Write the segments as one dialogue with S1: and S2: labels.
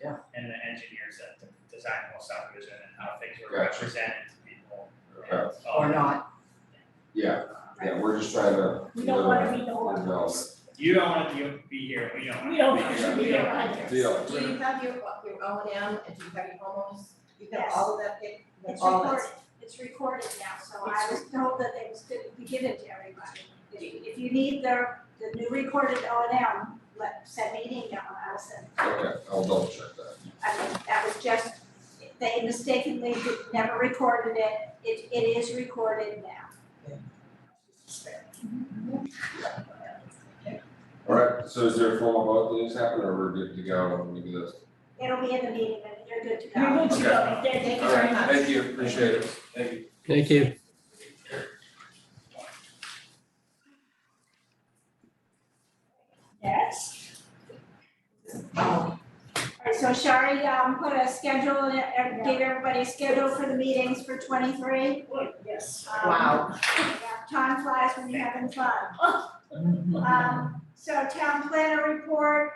S1: Yeah.
S2: And the engineers that design the whole subdivision and how things were
S3: Gotcha.
S2: represented to people.
S3: Okay,
S2: and all
S1: or
S2: that.
S1: not,
S3: yeah, yeah, we're just trying to.
S4: We don't wanna be the
S3: Develop
S4: ones.
S2: You don't wanna be, be here, we don't wanna be
S4: We
S2: here.
S4: don't want to be
S2: Yeah.
S4: around
S3: it. Deal.
S5: Do you have your, your O and M and do you have your homeowners? You have
S4: Yes.
S5: all of that, pic-
S4: It's
S5: all
S4: recorded,
S5: that's
S4: it's recorded now, so I was told that it was gonna be given to everybody. If you, if you need the, the new recorded O and M, let, send me an email and I'll send it.
S3: Okay, I'll double check that.
S4: I mean, that was just, they mistakenly did- never recorded it, it, it is recorded now.
S3: All right, so is there a formal vote that needs to happen or we're good to go when we do this?
S4: It'll be in the meeting, and you're good to go.
S5: You're good
S3: to
S5: go. Thank you very
S3: All right,
S5: much.
S3: thank you, appreciate it, thank you.
S6: Thank you.
S4: Next.
S5: Oh,
S4: Alright, so Shari, um, put a schedule, in it, and give everybody a schedule for the meetings for twenty-three.
S5: Yes.
S4: Um,
S5: Wow.
S4: yeah, Time flies when you're having fun. Um, so town planner report,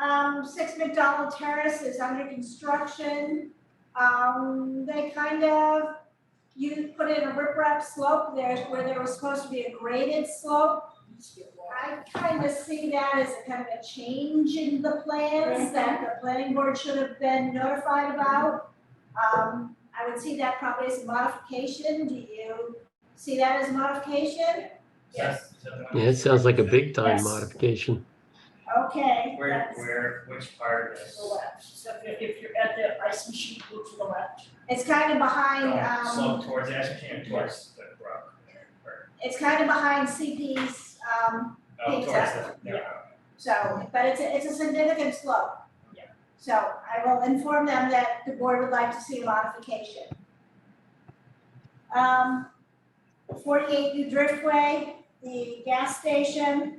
S4: um, Six McDonald Terrace is under construction. Um, they kind of, you put in a riprap slope there where there was supposed to be a graded slope. I kind of see that as a kind of a change in the plans that the planning board should have been notified about. Um, I would see that probably as a modification, do you see that as a modification?
S2: Is that- is that the one?
S6: Yeah, it sounds like a big time
S4: Yes.
S6: modification.
S4: Okay.
S2: Where,
S4: that's-
S2: where, which part of this?
S4: Oh,
S5: To the left, so if if you're at the ice machine, go to the left.
S4: It's kind of behind,
S2: Don't
S4: um,
S2: Oh, Slope towards Ashcan, towards the brook, or,
S4: it's kind of behind CP's, um,
S2: oh, towards the,
S4: Exactly.
S2: yeah.
S4: so, but it's, a- it's a significant slope.
S5: Yeah.
S4: So I will inform them that the board would like to see a modification. Um, forty-eight New Driftway, the gas station,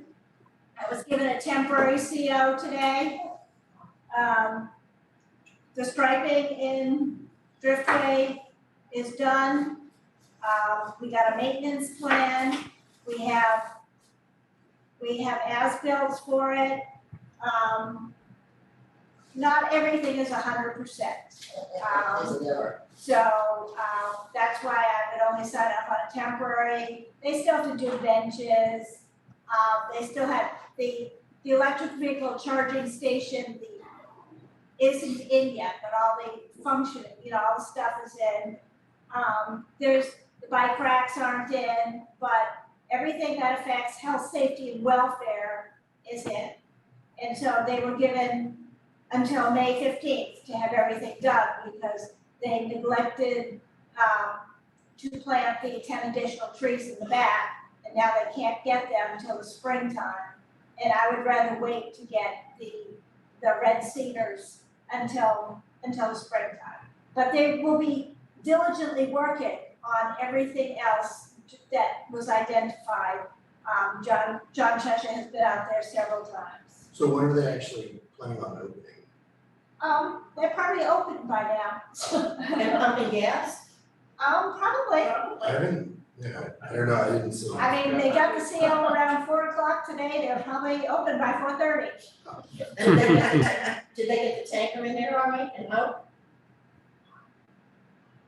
S4: I was given a temporary CO today. Um, the striping in Driftway is done. Um, we got a maintenance plan, we have, we have as-bills for it. Um, not everything is hundred percent. Um,
S5: Is it ever?
S4: So, um, that's why I would only sign up on a temporary, they still have to do benches. Um, they still have the, the electric vehicle charging station, the, isn't in yet, but all the function, you know, all the stuff is in. Um, there's, the bike racks aren't in, but everything that affects health, safety and welfare is in. And so they were given until May fifteenth to have everything done because they neglected um to plant the ten additional trees in the back, and now they can't get them until the springtime. And I would rather wait to get the the red cedars until until the springtime. But they will be diligently working on everything else that was identified. Um John John Cheshire has been out there several times.
S7: So when are they actually planning on opening?
S4: Um they're probably open by now.
S5: They're pumping gas?
S4: Um probably.
S7: I haven't, yeah, I don't know, I didn't see.
S4: I mean, they got the sale around four o'clock today, they're probably open by four thirty.
S5: And they got- Did they get the tanker in there all right and out?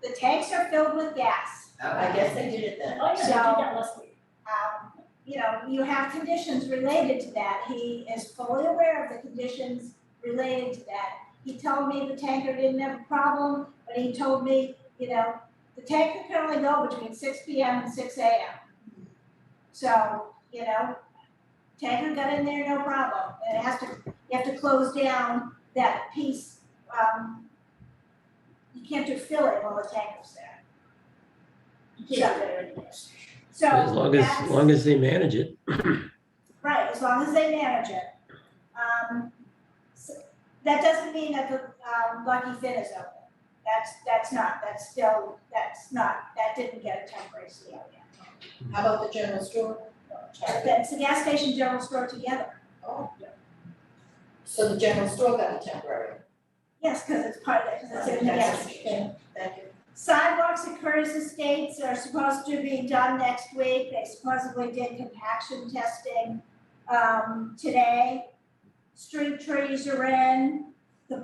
S4: The tanks are filled with gas.
S5: I guess they did it then.
S8: Oh, yeah, they did that last week.
S4: Um, you know, you have conditions related to that, he is fully aware of the conditions related to that. He told me the tanker didn't have a problem, but he told me, you know, the tanker can only go between six P M and six A M. So, you know, tanker got in there, no problem, and it has to, you have to close down that piece, um, you can't do filling while the tanker's there,
S8: You can't do that anymore.
S4: so
S6: As long as,
S4: that's-
S6: long as they manage it.
S4: Right, as long as they manage it. Um, so that doesn't mean that the, um, Lucky Fit is open. That's, that's not, that's still, that's not, that didn't get a temporary CO yet.
S5: How about the general store?
S4: But That's the gas station general store together.
S5: Oh, yeah. So the general store got a temporary.
S4: Yes, because it's part of it, because it's in the gas
S5: That's-
S4: station.
S5: Thank you.
S4: Sidewalks at Curtis Estates are supposed to be done next week. They supposedly did compaction testing um today. Street trees are in.